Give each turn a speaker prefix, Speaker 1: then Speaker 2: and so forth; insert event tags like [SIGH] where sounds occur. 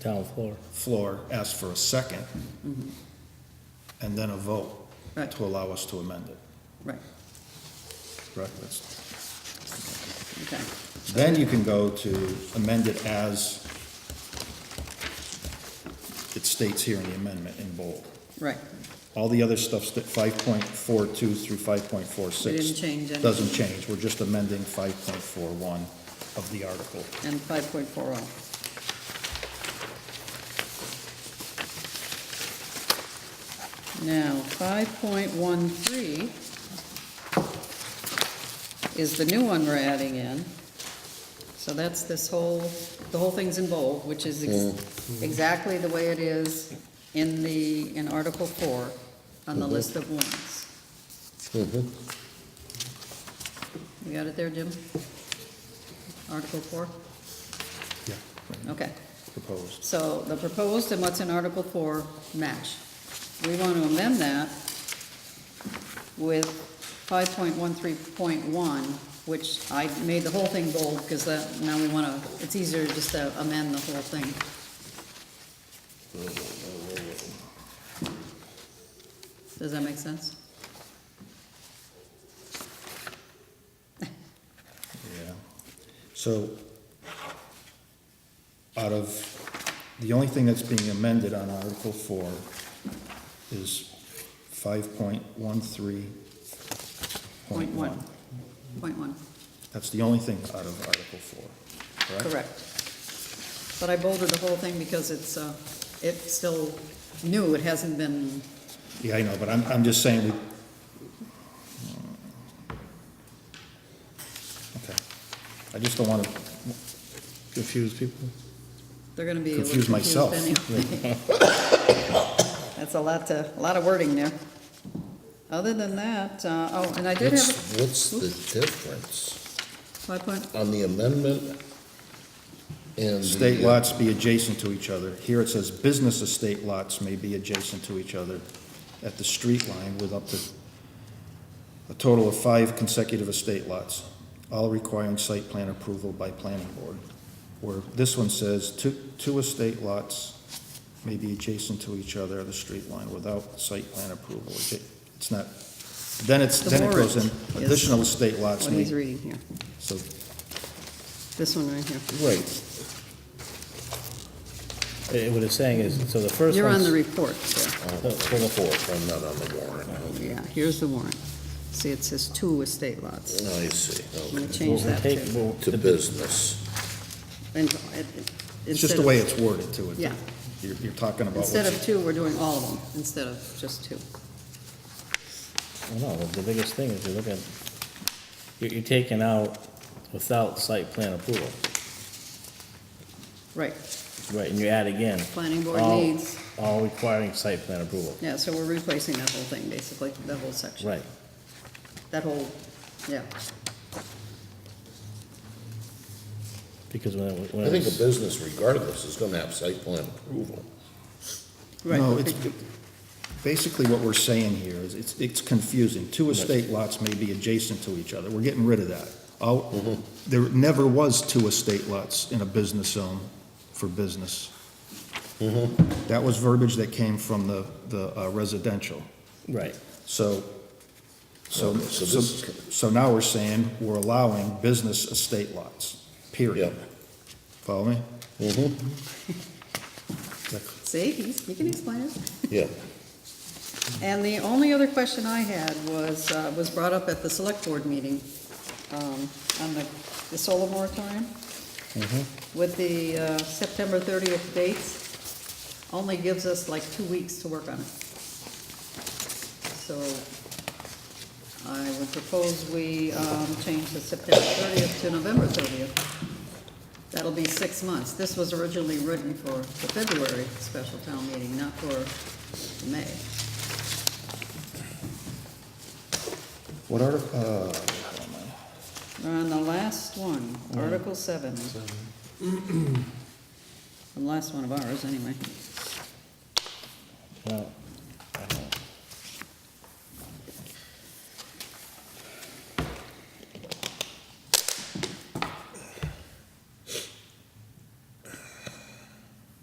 Speaker 1: town floor.
Speaker 2: floor, ask for a second, and then a vote
Speaker 3: Mm-hmm. Right.
Speaker 2: to allow us to amend it,
Speaker 3: right,
Speaker 2: correct? That's-
Speaker 3: okay.
Speaker 2: Then you can go to amend it as it states here in the amendment in bold.
Speaker 3: Right,
Speaker 2: All the other stuff's that five point four two through five point four six.
Speaker 3: We didn't change anything.
Speaker 2: Doesn't change, we're just amending five point four one of the article.
Speaker 3: and 5.40. Now, 5.13 is the new one we're adding in. So that's this whole, the whole thing's in bold, which is ex- exactly the way it is in the, in Article 4 on the list of warrants. You got it there, Jim? Article 4?
Speaker 2: Yeah.
Speaker 3: Okay.
Speaker 2: Proposed.
Speaker 3: So the proposed and what's in Article Four match. We want to amend that with five point one three point one, which I made the whole thing bold, because that, now we want to, it's easier just to amend the whole thing. Does that make sense?
Speaker 2: Yeah. So, out of, the only thing that's being amended on Article four is five point one three
Speaker 3: Point one. Point one,
Speaker 2: That's the only thing out of Article four, correct?
Speaker 3: correct. But I bolded the whole thing because it's, uh, it's still new, it hasn't been
Speaker 2: Yeah, I know, but I'm, I'm just saying we. Okay. I just don't wanna
Speaker 4: confuse people.
Speaker 3: They're gonna be a little
Speaker 2: Confuse
Speaker 3: confused
Speaker 2: myself. [LAUGHS]
Speaker 3: anyway. That's a lot to, a lot of wording there. Other than that, uh, oh, and I did have
Speaker 4: What's, what's the difference
Speaker 3: five point,
Speaker 4: on the amendment and the?
Speaker 2: State lots be adjacent to each other. Here it says business estate lots may be adjacent to each other at the street line with up to a total of five consecutive estate lots, all requiring site plan approval by planning board. Where this one says two, two estate lots may be adjacent to each other at the street line without site plan approval. It's not, then it's,
Speaker 3: The
Speaker 2: then it goes in,
Speaker 3: warrant is
Speaker 2: additional estate lots
Speaker 3: what
Speaker 2: may,
Speaker 3: he's reading here,
Speaker 2: so
Speaker 3: this one right here.
Speaker 4: Right,
Speaker 1: Eh, What it's saying is, so the first one's.
Speaker 3: You're on the report, there.
Speaker 4: on the fourth, Oh, I'm not on the warrant.
Speaker 3: yeah, here's the warrant. See, it says two estate lots.
Speaker 4: I see,
Speaker 3: I'm gonna
Speaker 4: okay.
Speaker 3: change that
Speaker 1: Take-
Speaker 3: too.
Speaker 1: well,
Speaker 4: To business,
Speaker 3: And, uh, it-
Speaker 2: it's just
Speaker 3: instead
Speaker 2: the
Speaker 3: of-
Speaker 2: way it's worded to it.
Speaker 3: Yeah.
Speaker 2: You're, you're talking about.
Speaker 3: Instead
Speaker 2: what's-
Speaker 3: of two, we're doing all of them, instead of just two.
Speaker 1: Well, no, the biggest thing is you're looking, you're, you're taking out without site plan approval,
Speaker 3: Right,
Speaker 1: right, and you add again.
Speaker 3: Planning board
Speaker 2: Oh.
Speaker 1: all-
Speaker 3: needs.
Speaker 1: All requiring site plan approval,
Speaker 3: yeah, so we're replacing that whole thing, basically, that whole section.
Speaker 1: right.
Speaker 3: That whole, yeah.
Speaker 1: Because when it, when
Speaker 4: I
Speaker 1: it
Speaker 4: think a
Speaker 1: was,
Speaker 4: business regardless is gonna have site plan approval.
Speaker 3: Right.
Speaker 2: No, it's, basically what we're saying here is, it's, it's confusing. Two estate lots may be adjacent to each other. We're getting rid of that. Oh, there never was two estate lots in a business zone for business. That was verbiage that came from the, the uh, residential.
Speaker 1: right,
Speaker 2: So, so,
Speaker 4: Okay, so
Speaker 2: so,
Speaker 4: this is-
Speaker 2: so now we're saying we're allowing business estate lots, period.
Speaker 4: Yep.
Speaker 2: Follow me?
Speaker 4: Mm-hmm.
Speaker 3: See, he's- he can explain it.
Speaker 4: Yeah,
Speaker 3: And the only other question I had was, uh, was brought up at the select board meeting um, on the the solar moratorium with the uh, September 30th dates, only gives us like two weeks to work on it. So I would propose we um, change the September 30th to November 30th. That'll be six months. This was originally written for the February special town meeting, not for May.
Speaker 2: What are, uh,
Speaker 3: We're on the last one, Article seven. The last one of ours, anyway.
Speaker 1: well,